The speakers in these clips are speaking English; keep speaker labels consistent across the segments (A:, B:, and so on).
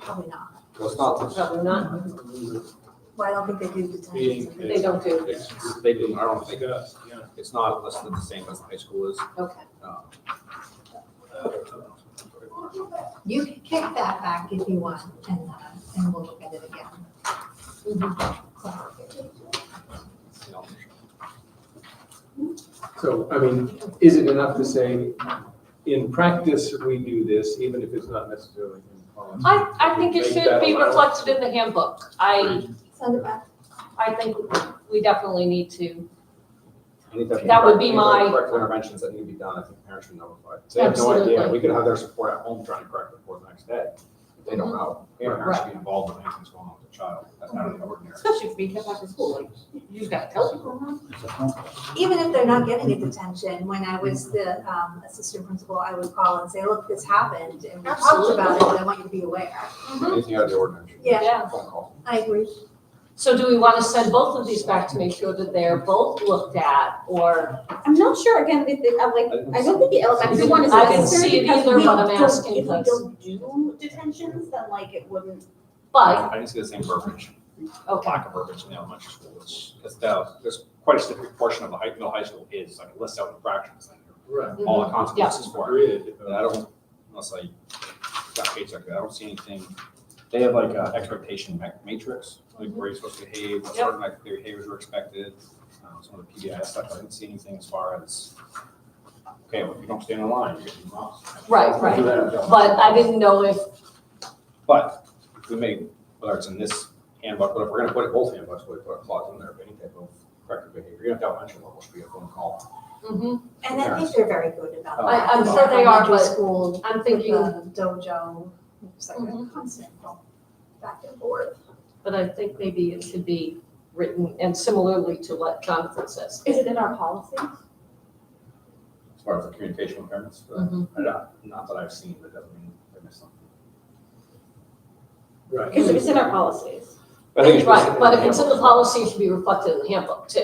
A: Probably not.
B: That's not this
C: Probably not,
A: Well, I don't think they do
D: meeting.
A: detention.
C: they don't do,
B: It's, they do, I don't think, it's not less than the same as high school is.
C: okay.
B: Um,
A: You can kick that back if you want and, uh, and we'll look at it Mm-hmm. again.
B: you know,
D: So, I mean, is it enough to say, in practice, we do this, even if it's not necessarily in policy?
C: I, I think it
D: Make
C: should
D: that
C: be
D: allowed.
C: reflected in the handbook. I,
A: Send it back.
C: I think we definitely need to,
B: any type of-
C: That would be
B: any type of
C: my-
B: Corrective interventions that need to be done, I think parents should notify. They have no idea,
C: Absolutely.
B: we could have their support at home trying to correct the report the next day. If They
C: Mm-hmm.
B: don't know, parents should be involved in anything that's going on with the child, that's out of the ordinary.
C: especially if we come back to school, like, you just gotta tell people.
A: Even if they're not getting a detention, when I was the, um, assistant principal, I would call and say, look, this happened and we talked about it, and I want you to be aware.
B: Anything out of the ordinary. should be a
C: Mm-hmm. Yeah.
B: Phone call.
A: I agree.
C: So do we wanna send both of these back to make sure that they're both looked at, or,
E: I'm not sure, again, with the, I'm like, I don't think the elementary one is
C: I didn't see it
E: necessary because
C: either,
E: we
C: but I'm
E: don't-
C: asking
E: if we
C: because-
E: don't do detentions, then like it wouldn't.
C: but,
B: I didn't see the same verbiage,
C: okay,
B: lack of verbiage in the elementary school, it's, it's, the- there's quite a significant portion of the high, middle high school is, like, it lists out infractions, and
D: Right.
C: Mm-hmm.
B: all the consequences for it.
D: Agreed.
B: And I don't, unless I got paycheck, I don't see anything. They have like a expectation ma- matrix, like where you're supposed to behave, what sort of like their behaviors were expected. Um, Some of the PBI stuff, I didn't see anything as far as, okay, well, if you don't stand in line, you're getting lost.
C: Right, right.
B: Do that.
C: but I didn't know if,
B: But we may, whether it's in this handbook, but if we're gonna put it both handbooks, we put a clause in there of any type of corrective behavior. You have to have mention level, should be a phone call.
C: mhm.
A: And I think they're very good about that.
B: I-
C: Oh, I'm sure they are,
A: Elementary
C: but
A: School,
C: I'm
A: with
C: thinking
A: the dojo, it's like a
C: Mhm.
A: constant back and forth.
C: But I think maybe it should be written, and similarly to what Jonathan says.
E: Is it in our policy?
B: As far as the communication with parents, but
A: Mm-hmm.
C: Mhm.
B: I don't- not that I've seen, but doesn't mean I missed something.
D: Right.
E: It's, it's in our policies.
B: I think it's
C: Right, but if it's in the policy, it should be reflected in the handbook too.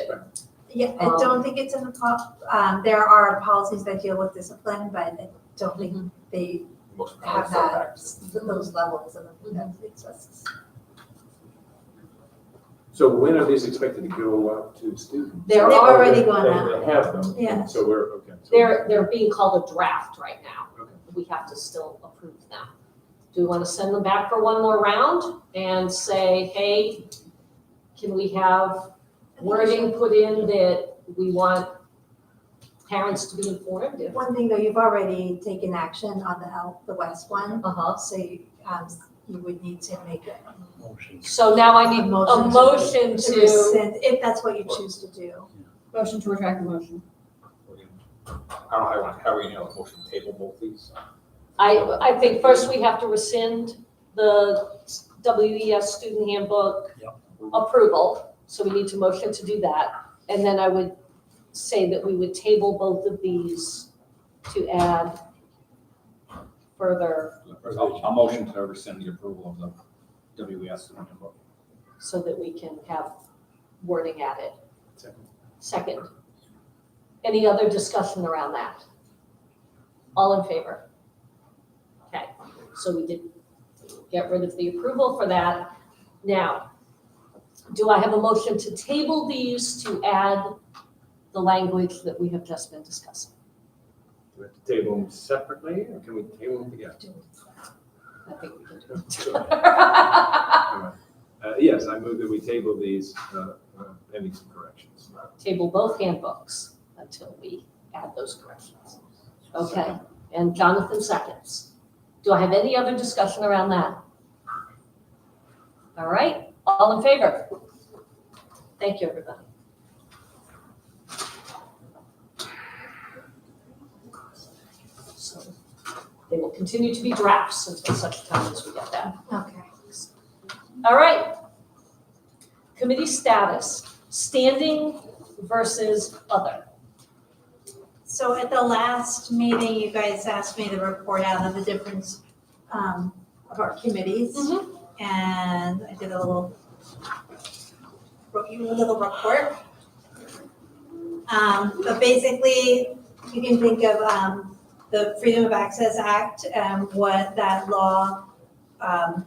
A: Yeah, I
C: Um,
A: don't think it's in the pop, um, there are policies that deal with discipline, but I don't
C: Mm-hmm.
A: think they
B: Most
C: Oh,
A: have
B: parents don't
A: that, Mm-hmm.
B: practice.
A: those levels of, that exists.
D: So when are these expected to go out to students?
C: They're
A: They've already
C: already,
A: gone
D: They-
A: out,
D: They have them.
A: Yes.
D: So we're, okay. so-
C: they're, they're being called a draft right now.
D: Okay.
C: We have to still approve them. Do we want to send them back for one more round and say, hey, can we have wording put in that we want parents to be informed? if-"
A: One thing though, you've already taken action on the health, the West one,
C: Uh-huh.
A: so you, um, you would need to make it.
C: So now I need a
A: Motion to-
C: motion to,
A: rescind, If that's what you choose to do.
E: Motion to retract the motion.
B: We're gonna- I don't know how you want, how are you handle the motion to table both these?
C: I, I think first we have to rescind the WES student handbook approval, so we need to motion to do that. And then I would say that we would table both of these to add further
B: I'll, I'll motion to rescind the approval of the WES and handbook.
C: so that we can have wording added.
D: Second.
C: Second, any other discussion around that? All in favor? Okay, so we did get rid of the approval for that. Now, do I have a motion to table these to add the language that we have just been discussing?
D: Do we have to table them separately or can we table them together?
C: I think we can do
D: Sure.
C: it.
D: Uh, Yes, I move that we table these uh, uh, pending some corrections.
C: Table both handbooks until we add those corrections. Okay, and Jonathan seconds. Do I have any other discussion around that? All right, all in favor? Thank you, everybody. So They will continue to be drafts until such time as we get that.
A: Okay.
C: All right. Committee status, standing versus other.
A: So at the last meeting, you guys asked me to report out of the difference um, of our committees.
C: Mhm.
A: And I did a little, wrote you a little report. Um, But basically, you can think of um, the Freedom of Access Act, um, what that law um,